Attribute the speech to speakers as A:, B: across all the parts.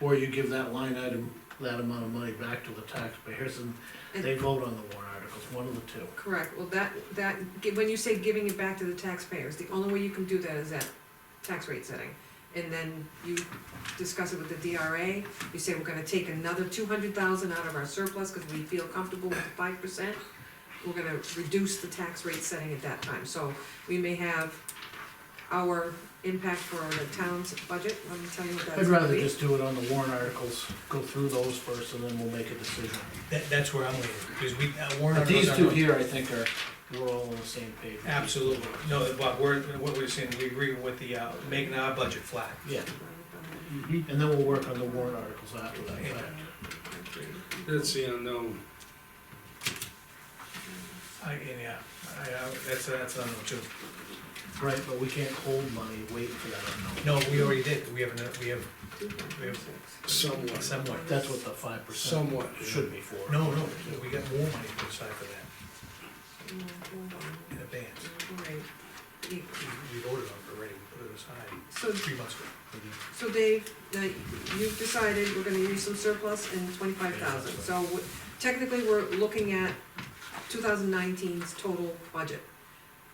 A: Or you give that line item, that amount of money back to the taxpayers and they vote on the warrant articles, one of the two.
B: Correct, well, that, that, gi- when you say giving it back to the taxpayers, the only way you can do that is at tax rate setting. And then you discuss it with the DRA, you say we're gonna take another two hundred thousand out of our surplus, cause we feel comfortable with the five percent. We're gonna reduce the tax rate setting at that time, so we may have our impact for the town's budget, let me tell you what that's
A: I'd
B: gonna
A: rather
B: be.
A: just do it on the warrant articles, go through those first and then we'll make a decision.
C: That, that's where I'm leaning, because we, uh, warrant
A: But
C: articles
A: these two
C: are-
A: here, I think are, we're all on the same page.
C: Absolutely, no, Bob, we're, what we're saying, we agree with the, uh, making our budget flat.
A: Yeah,
C: Mm-hmm.
A: and then we'll work on the warrant articles after that fact.
D: That's the unknown.
C: I, and yeah, I, I, that's, that's unknown too.
A: Right, but we can't hold money, wait for that unknown.
C: No, we already did, we have, an- we have
D: Somewhat.
C: somewhat,
A: That's what the five percent
D: Somewhat.
A: should be for.
C: no, no, we got more money put aside for that in advance.
B: Right, You-
C: We- We voted on it already, we put it aside
B: so
C: three months ago.
B: So Dave, now you've decided we're gonna use some surplus and twenty-five thousand, so w- technically, we're looking at 2019's total budget.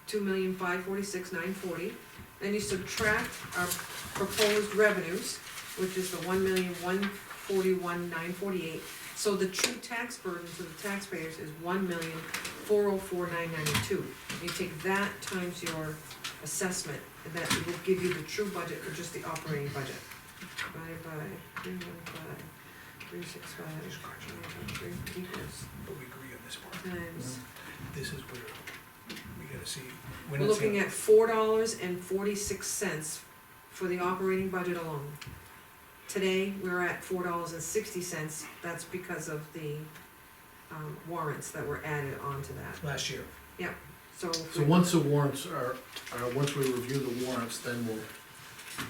B: Two million five forty-six nine forty, then you subtract our proposed revenues, which is the one million one forty-one nine forty-eight. So the true tax burden to the taxpayers is one million four oh four nine ninety-two. You take that times your assessment, and that will give you the true budget for just the operating budget. Divided by three one five, three six five,
C: These cards are-
B: divided by three equals
C: But we agree on this part,
B: times.
C: this is where we gotta see. we're
B: We're
C: not saying-
B: looking at four dollars and forty-six cents for the operating budget alone. Today, we're at four dollars and sixty cents, that's because of the, um, warrants that were added onto that,
C: Last year,
B: so. if
A: So
B: we-
A: once the warrants are, are, once we review the warrants, then we'll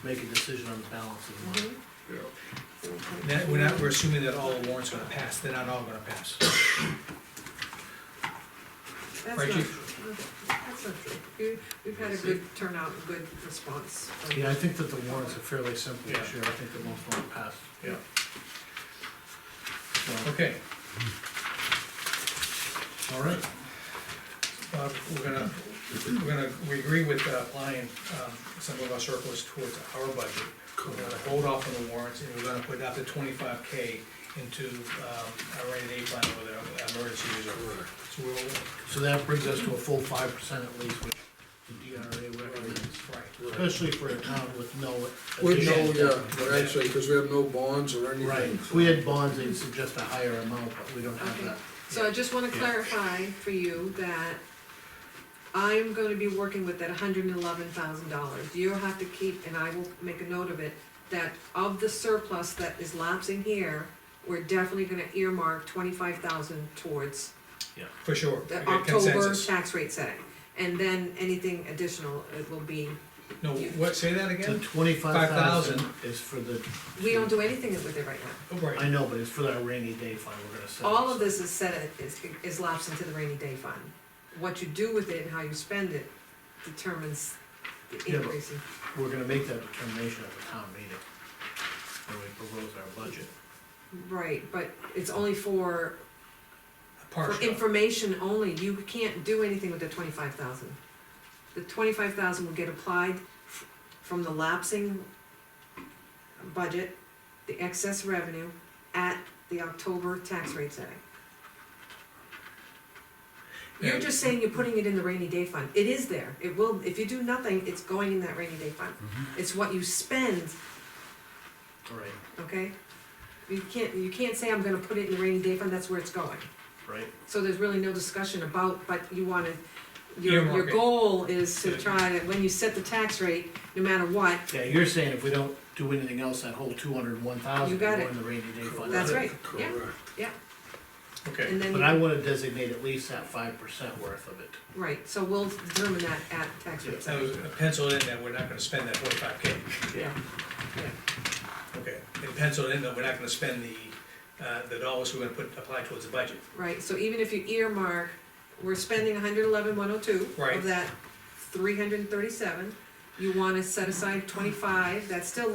A: make a decision on the balance of the money.
B: Mhm.
C: And that, we're not, we're assuming that all the warrants are gonna pass, they're not all gonna pass.
B: That's
C: Right,
B: not,
C: Chief?
B: true. that's not true, you, we've had a good turnout, and good response. from-
A: Yeah, I think that the warrants are fairly simple this year, I think that most of them passed.
C: Yeah.
A: So,
C: Okay,
A: all right,
C: uh, we're gonna, we're gonna, we agree with uh, applying, um, some of our surplus towards our budget. We're gonna hold off on the warrants, and we're gonna put up to twenty-five K into, um, our rainy day fund or the emergency reserve. So we'll,
A: so that brings us to a full five percent at least, which the DRA recommends,
C: right,
A: especially for a town with no.
D: With no,
A: additional-
D: yeah, but actually, because we have no bonds or anything.
A: Right, if we had bonds, they'd suggest a higher amount, but we don't have
B: Okay.
A: that.
B: So I just wanna
A: Yeah.
B: clarify for you that I'm gonna be working with that hundred and eleven thousand dollars. You'll have to keep, and I will make a note of it, that of the surplus that is lapsing here, we're definitely gonna earmark twenty-five thousand towards
C: for sure. We
B: the
C: got
B: October
C: consensus.
B: tax rate setting. And then anything additional, it will be,
C: No, what, say that
A: The
C: again?
A: twenty-five thousand is for the,
B: we don't do anything with it right now.
C: Oh, right.
A: I know, but it's for that rainy day fund we're gonna set.
B: All of this is set, at- is, is lapsed into the rainy day fund. What you do with it and how you spend it determines the
A: Yeah, but-
B: increase in
A: We're gonna make that determination at the town meeting, when we propose our budget.
B: Right, but it's only for, for
C: Partial.
B: information only, you can't do anything with the twenty-five thousand. The twenty-five thousand will get applied f- from the lapsing budget, the excess revenue, at the October tax rate setting. You're
C: Yeah.
B: just saying you're putting it in the rainy day fund, it is there, it will, if you do nothing, it's going in that rainy day fund. It's what you spend
A: Right,
B: okay? You can't, you can't say I'm gonna put it in the rainy day fund, that's where it's going.
A: right.
B: So there's really no discussion about, but you wanna, your, your
C: Earmark it.
B: goal is to
C: Yeah.
B: try to, when you set the tax rate, no matter what,
A: Yeah, you're saying if we don't do anything else, that whole two hundred and one
B: You
A: thousand will
B: got
A: go
B: it.
A: in the rainy day fund.
B: That's right, yeah.
D: Correct.
C: Okay,
B: and then,
A: But I wanna designate at least that five percent worth of it.
B: right, so we'll determine that at tax rate.
C: that was penciled in that we're not gonna spend that forty-five K.
B: Yeah.
C: Okay, and pencil it in that we're not gonna spend the, uh, the dollars we're gonna put, apply towards the budget.
B: Right, so even if you earmark, we're spending 111,102 hundred eleven, one oh two
C: Right.
B: of that three hundred and thirty-seven, you wanna set aside twenty-five, that's still